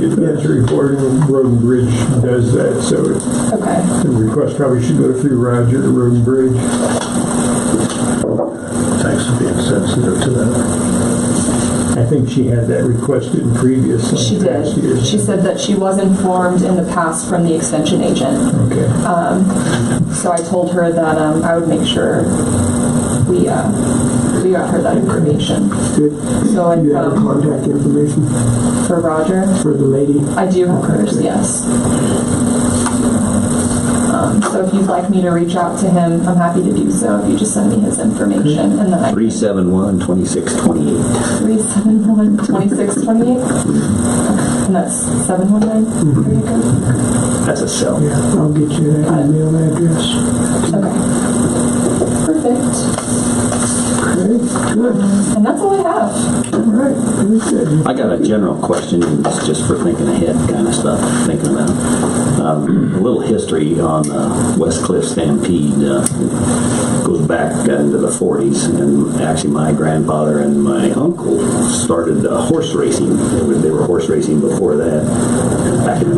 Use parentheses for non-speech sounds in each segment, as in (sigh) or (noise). It's reported, and Road and Bridge does that, so it- Okay. the request probably should go through Roger, Road and Bridge. Thanks for being sensitive to that. I think she had that requested previously. She past did. years. She said that she was informed in the past from the extension agent. Okay, So I told her that um, I would make sure we uh, we got her that information. Good. So I You have her um, contact information for Roger, for the lady? I do have hers. Yes. Um, so if you'd like me to reach out to him, I'm happy to do so. If you just send me his information, and then I 371 2628. three seven one twenty six twenty eight, and that's seven one nine. There you go. That's a cell. Yeah, I'll get you that email address. Okay. Perfect. Okay, good. And that's all I have. All right, very good. I got a general question, and it's just for thinking ahead kind of stuff, thinking about. Um, a little history on uh, West Cliff Stampede uh, goes back into the 40s, and actually my grandfather and my uncle started uh, horse racing. They were, they were horse racing before that, back in the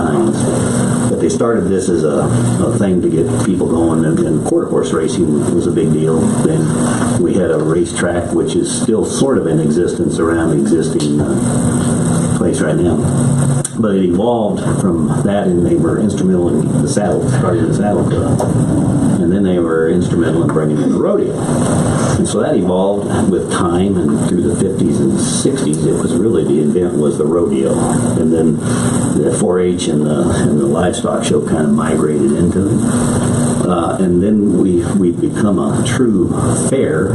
1909s. But they started this as a, a thing to get people going, and, and quarter horse racing was a big deal. Then we had a racetrack, which is still sort of in existence around the existing uh, place right now. But it evolved from that, and they were instrumental in the saddle, starting the saddle club. And then they were instrumental in bringing in the rodeo. And so that evolved with time, and through the 50s and 60s, it was really the event was the rodeo. And then the 4-H and the, and the livestock show kind of migrated into it uh, and then we we become a true fair,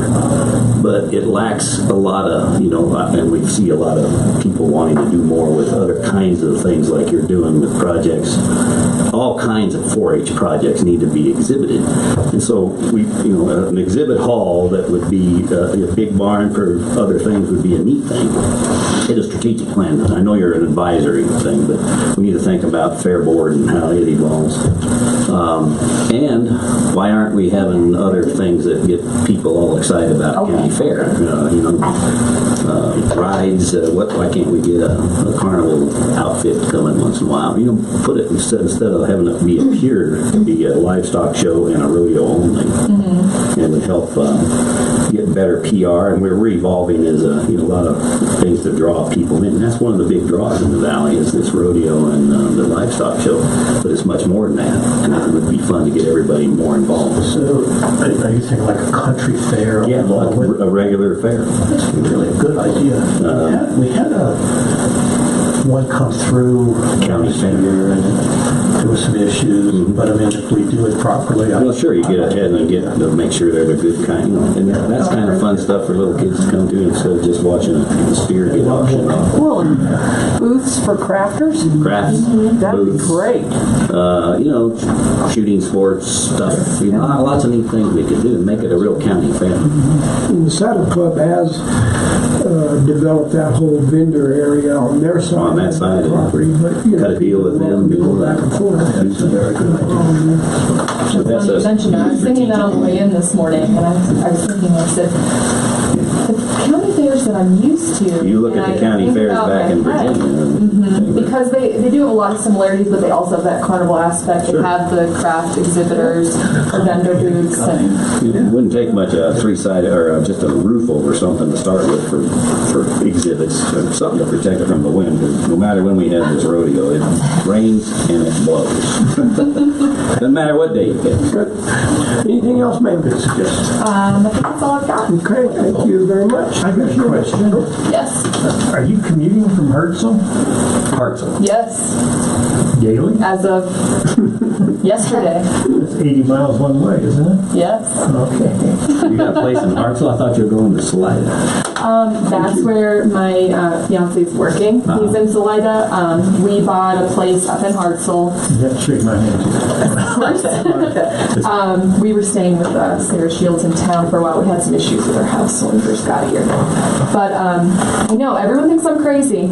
but it lacks a lot of you know, uh, and we see a lot of people wanting to do more with other kinds of things like you're doing with projects. All kinds of 4-H projects need to be exhibited, and so we you know an exhibit hall that would be uh, a big barn for other things would be a neat thing hit a strategic plan. I know you're an advisory thing, but we need to think about fair board and how it evolves. Um, and why aren't we having other things that get people all excited about county fair? Uh, you know, uh, rides. Uh, what? Why can't we get a, a carnival outfit coming once in a while? You know, put it instead, instead of having it be a pure, be a livestock show and a rodeo only it would help uh, get better PR. And we're revolving as a, you know, a lot of things to draw people in. That's one of the big draws in the valley is this rodeo and uh, the livestock show. But it's much more than that, and it would be fun to get everybody more involved. So, are- are you thinking like a country fair? Yeah, like along with- a regular affair. That's really a good idea. We had- We had a, one come through. County fair. and There was some issues, but I mean, if we do it properly. I- Mm-hmm. Well, sure, you get ahead and get to make sure they're the good kind, you know, and that, that's kind of fun stuff for little kids to come to instead of just watching a spear get auctioned off. Well, and booths for crafters? Crafts, That'd be booths. great. uh, you know, shooting sports stuff. You know, uh, lots of neat things we could do and make it a real county fair. And the Saddle Club has uh, developed that whole vendor area on their side. On that side, of the yeah. property, but, you know, Cut a deal with them, people do Go back and forth. Do some- That's that's funny a you mentioned that. I was thinking that on the way in this morning, and I was, I was thinking, I said, the county fairs that I'm used to. You look and at I the county think fairs about back in my friends, Virginia. and- Because they, they do have a lot of similarities, but they also have that carnival aspect. They have the craft exhibitors, the vendor booths, and It wouldn't take much a three-sided or uh, just a roof over something to start with for, for exhibits, or something to protect it from the wind. 'Cause No matter when we have this rodeo, it rains and it blows. (laughs) Doesn't matter what day you get. Anything else, ma'am? Good suggestion. um, I think that's all I've got. Okay, thank you very much. I got a question. Yes, Are you commuting from Hertzel? Hartsel. yes, Daily? as of (laughs) yesterday, It's 80 miles one way, isn't it? yes. Okay. You got a place in Hartsel? I thought you were going to Salida. That's where my uh, fiance's working. He's in Salida. Um, we bought a place up in Hartsel. Yeah, shake my hand. (laughs) Um, We were staying with uh, Sarah Shields in town for a while. We had some issues with our house when we first got here. But um, I know everyone thinks I'm crazy,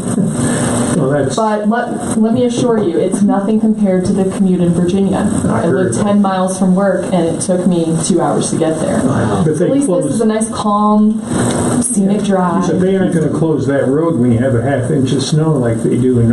well, that's, but let, let me assure you, it's nothing compared to the commute in Virginia. I lived 10 miles from work and it took me two hours to get there. but At they least this close, is a nice, calm, scenic drive. So they aren't gonna close that road when you have a half inch of snow like they do in